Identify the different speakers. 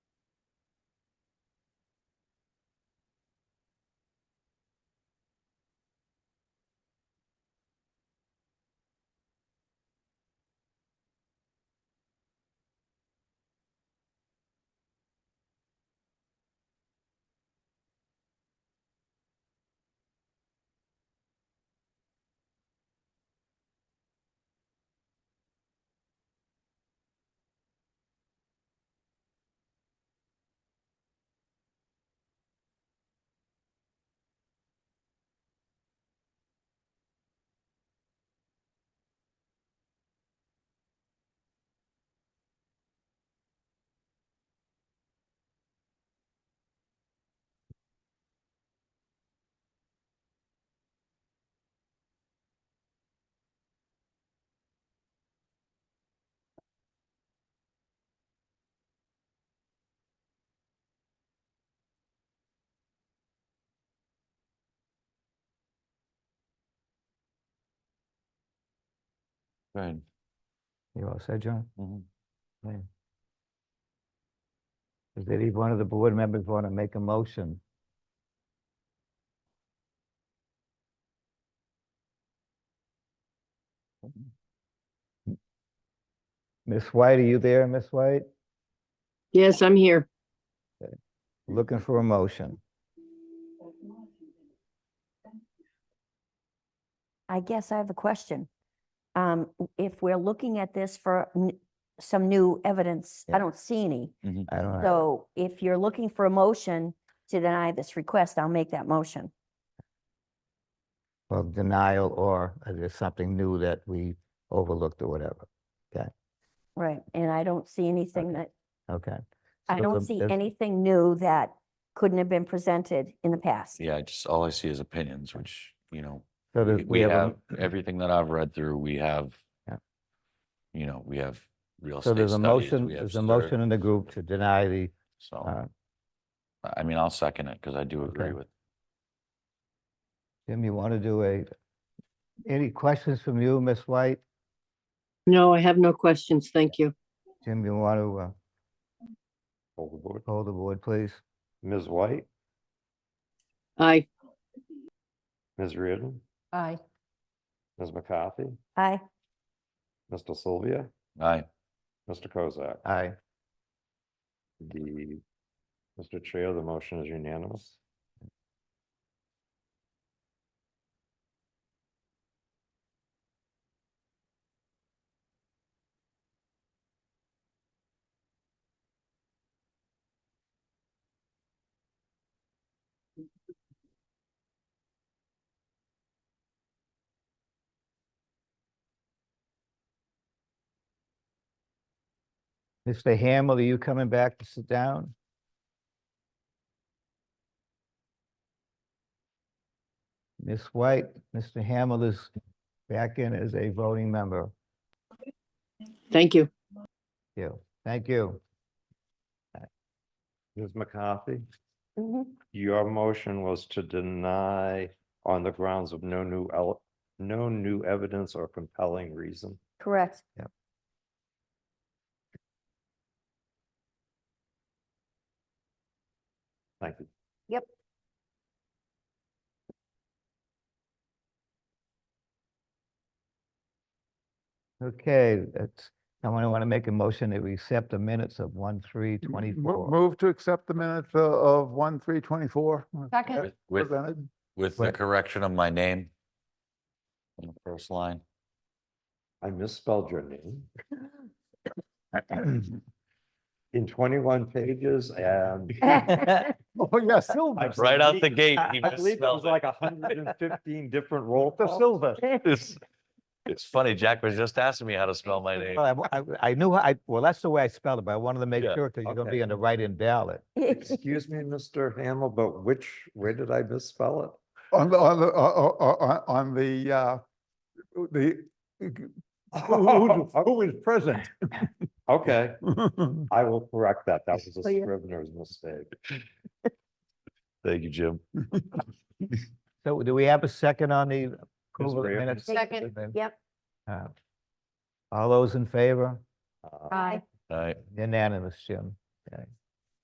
Speaker 1: Right.
Speaker 2: You all said, John?
Speaker 1: Mhm.
Speaker 2: Does any one of the board members want to make a motion? Miss White, are you there, Miss White?
Speaker 3: Yes, I'm here.
Speaker 2: Looking for a motion.
Speaker 4: I guess I have a question. Um, w- if we're looking at this for n- some new evidence,
Speaker 2: Yeah.
Speaker 4: I don't see any.
Speaker 1: Mm-hmm.
Speaker 2: I don't know.
Speaker 4: So if you're looking for a motion to deny this request, I'll make that motion.
Speaker 2: Well, denial or is there something new that we overlooked or whatever?
Speaker 4: Right. And I don't see anything
Speaker 2: Okay.
Speaker 4: that,
Speaker 2: Okay.
Speaker 4: I
Speaker 2: So
Speaker 4: don't
Speaker 2: the-
Speaker 4: see
Speaker 2: there's-
Speaker 4: anything new that couldn't have been presented in the past.
Speaker 1: Yeah, I just, all I see is opinions, which, you know,
Speaker 2: So
Speaker 1: we-
Speaker 2: there's-
Speaker 1: we
Speaker 2: a-
Speaker 1: have, everything that I've read through, we have,
Speaker 2: Yeah.
Speaker 1: you know, we have real
Speaker 2: So
Speaker 1: estate
Speaker 2: there's a
Speaker 1: studies.
Speaker 2: motion,
Speaker 1: we have
Speaker 2: there's a
Speaker 1: sur-
Speaker 2: motion in the group to deny the,
Speaker 1: So,
Speaker 2: uh,
Speaker 1: I I mean, I'll second it because I do agree
Speaker 2: Okay.
Speaker 1: with,
Speaker 2: Jim, you want to do a, any questions from you, Miss White?
Speaker 3: No, I have no questions. Thank you.
Speaker 2: Jim, you want to, uh,
Speaker 5: Hold the board.
Speaker 2: hold the board, please?
Speaker 5: Ms. White,
Speaker 3: Aye.
Speaker 5: Ms. Reardon,
Speaker 3: Aye.
Speaker 5: Ms. McCarthy,
Speaker 4: Aye.
Speaker 5: Mr. Sylvia,
Speaker 1: aye,
Speaker 5: Mr. Kozak.
Speaker 2: Aye.
Speaker 5: The, Mr. Chair, the motion is unanimous.
Speaker 2: Mr. Hamel, are you coming back to sit down? Miss White, Mr. Hamel is back in as a voting member.
Speaker 3: Thank you.
Speaker 2: You, thank you.
Speaker 5: Ms. McCarthy,
Speaker 4: Mhm.
Speaker 5: your motion was to deny on the grounds of no new el, no new evidence or compelling reason.
Speaker 4: Correct.
Speaker 5: Thank you.
Speaker 2: Okay, that's, someone want to make a motion that we accept the minutes of one, three,
Speaker 6: M- mo-
Speaker 2: twenty-four.
Speaker 6: Move to accept the minutes uh, of one, three, twenty-four.
Speaker 7: Second.
Speaker 1: with- with,
Speaker 6: Presented.
Speaker 1: with the
Speaker 2: Right.
Speaker 1: correction of my name. In the first line,
Speaker 5: I misspelled your name. In twenty-one pages and.
Speaker 6: Oh, yeah, Silva.
Speaker 5: I've
Speaker 1: right
Speaker 5: seen
Speaker 1: out the
Speaker 5: me-
Speaker 1: gate,
Speaker 5: I
Speaker 1: he
Speaker 5: I believe there was
Speaker 1: misspelled it.
Speaker 5: like hundred and fifteen different roll
Speaker 6: The
Speaker 5: calls.
Speaker 6: Silva.
Speaker 1: it's, it's funny, Jack was just asking me how to spell my name.
Speaker 2: Well, I, I- I knew, how- I, well, that's the way I spelled it, but I wanted to make
Speaker 1: Yeah,
Speaker 2: sure, because you're gonna
Speaker 5: okay.
Speaker 2: be on the write-in ballot.
Speaker 5: Excuse me, Mr. Hamel, but which, where did I misspell it?
Speaker 6: On the, on the, uh, uh, uh, on the, uh, the, who- who was present?
Speaker 5: Oh, Okay, I will correct that. That was a
Speaker 3: Oh, yeah.
Speaker 5: scrivener's mistake.
Speaker 1: Thank you, Jim.
Speaker 2: So do we have a second on the approval of the
Speaker 5: Graham?
Speaker 2: minutes?
Speaker 7: Second.
Speaker 4: Yep.
Speaker 2: Uh, All those in favor?
Speaker 5: Uh,
Speaker 7: Aye.
Speaker 1: All right,
Speaker 2: Unanimous, Jim. Okay.